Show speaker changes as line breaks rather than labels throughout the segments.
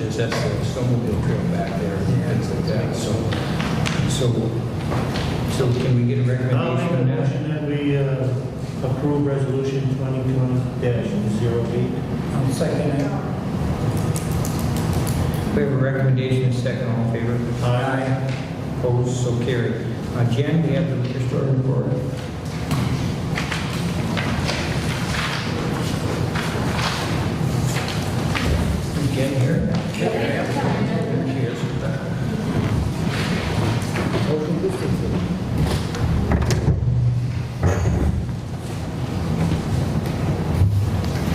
is that's the snowmobile trail back there and things like that, so, so, so can we get a
I'll make a
recommendation on that?
motion that we uh, approve resolution 2020-08.
I'll second it.
We have a recommendation, second, all in favor?
Aye.
Opposed, so carried. Uh, Jen, we have the historic report. Jen here? She is.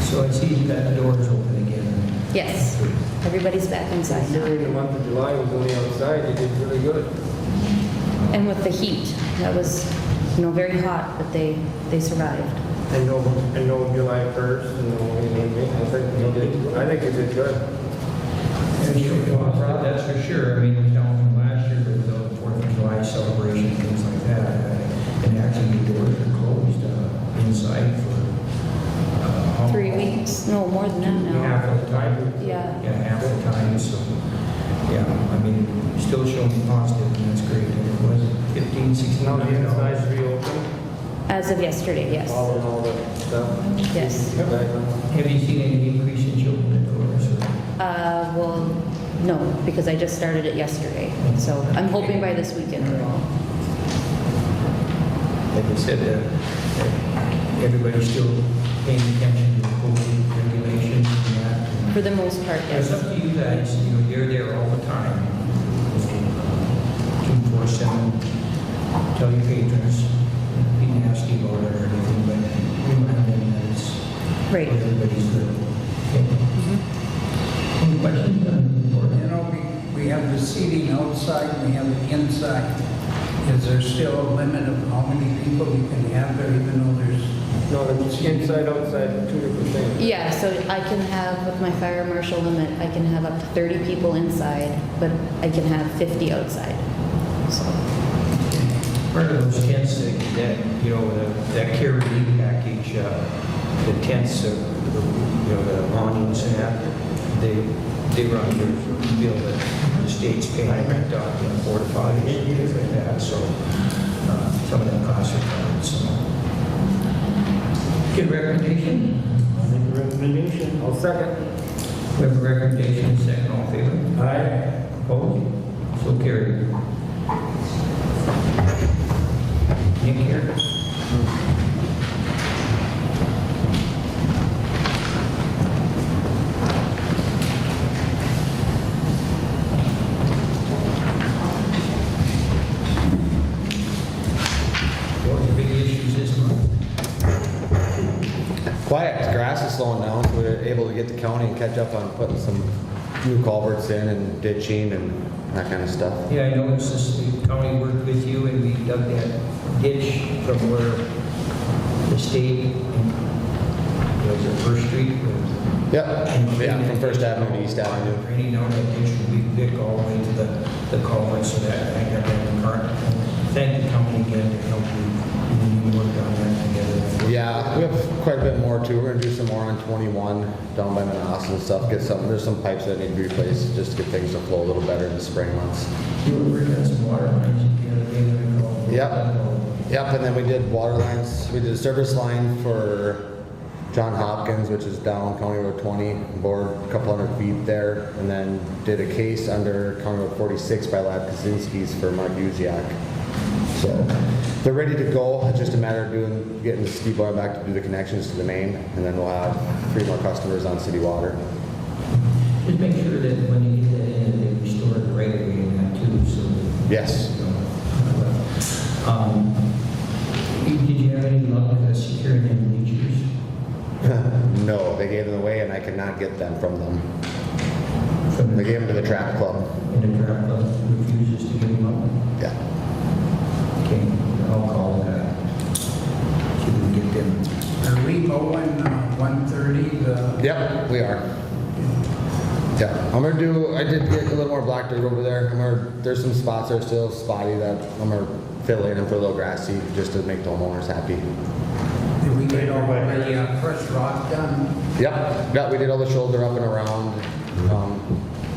So I see that door is open again.
Yes, everybody's back inside now.
Considering the month of July was only outside, you did really good.
And with the heat, that was, you know, very hot, but they, they survived.
I know, I know July 1st and the only meeting, I think you did, I think you did good.
And you know, I'm proud, that's for sure. I mean, we don't from last year, but without the Fourth of July celebration, things like that. uh, And actually, the doors are closed uh, inside for. uh, how-
Three weeks, no, more than that now.
Half of the time.
Yeah.
Yeah, half of the time, so, yeah, I mean, still showing positive, and that's great. And it was 15, 16.
Now the inside's reopened,
As of yesterday, yes, Uh,
all in all the stuff.
yes.
Back.
Have you seen any increase in children at doors? or-
Uh, well, no, because I just started it yesterday, so I'm hoping by this weekend we're all.
Like I said, uh, uh, everybody's still paying attention to COVID regulations and that. and-
For the most part,
It's
yes.
up to you guys, you know, you're there all the time. Two, four, seven, tell your patrons, be nasty about it or anything, but remind them that it's for
Right.
everybody's good. Okay.
Mhm. Mm-hmm.
Any questions on the
You
board?
know, we, we have the seating outside, and we have the inside. Is there still a limit of how many people you can have there, even though there's,
No, the inside, outside, two different things.
Yeah, so I can have, with my fire marshal limit, I can have up to 30 people inside, but I can have 50 outside. So,
Part of those tents that, that, you know, the- that care relief package, uh, the tents, uh, you know, the awnings and that, they, they run your bill that the state's paying uh, rent out and porta potties and things like that, so uh, some of them costs are covered, so. Good recommendation.
I'll make a recommendation.
I'll second.
We have a recommendation, second, all in favor? Aye. Opposed? So carried. Nick here? What were the big issues this month?
quiet, 'cause grass is slowing down, so we were able to get the county and catch up on putting some new culverts in and ditching and that kind of stuff.
Yeah, I noticed this, the county worked with you and we dug that ditch from where the state, and- was it First Street?
Yep, yeah, from First Avenue to East Avenue.
Draining down that ditch from Big Dick all the way to the, the culvert, so that I got that in the car. Thank the county again to help you, you worked on that together.
Yeah, we have quite a bit more too. We're gonna do some more on 21 down by Manassas and stuff. Get some, there's some pipes that need to be replaced just to get things to flow a little better in the spring months.
You were working on some water lines the other day when I called.
Yep. Yep, and then we did water lines, we did a service line for John Hopkins, which is down County Road 20, bored a couple hundred feet there, and then did a case under County Road 46 by Lab Kaczynski's for Mark Uziak. So they're ready to go, it's just a matter of doing, getting the ski bar back to do the connections to the main, and then we'll have three more customers on city water.
Just make sure that when you get that in, that they restore it right away and that too, so. that-
Yes.
Um, Did you have any luck with us securing any bleachers?
No, they gave them away and I could not get them from them.
from
They gave them to the trap club,
And the trap club refuses to give them up?
yeah.
Okay, I'll call that. See if we can get them.
are we mowing uh, 130, the,
Yep, we are. Yeah, I'm gonna do, I did get a little more black dirt over there, I'm gonna, there's some spots that are still spotty that I'm gonna fill in and put a little grass seed just to make the homeowners happy.
did we
Right
get all
away.
the uh, fresh rock done?
Yep, yeah, we did all the shoulder up and around, um,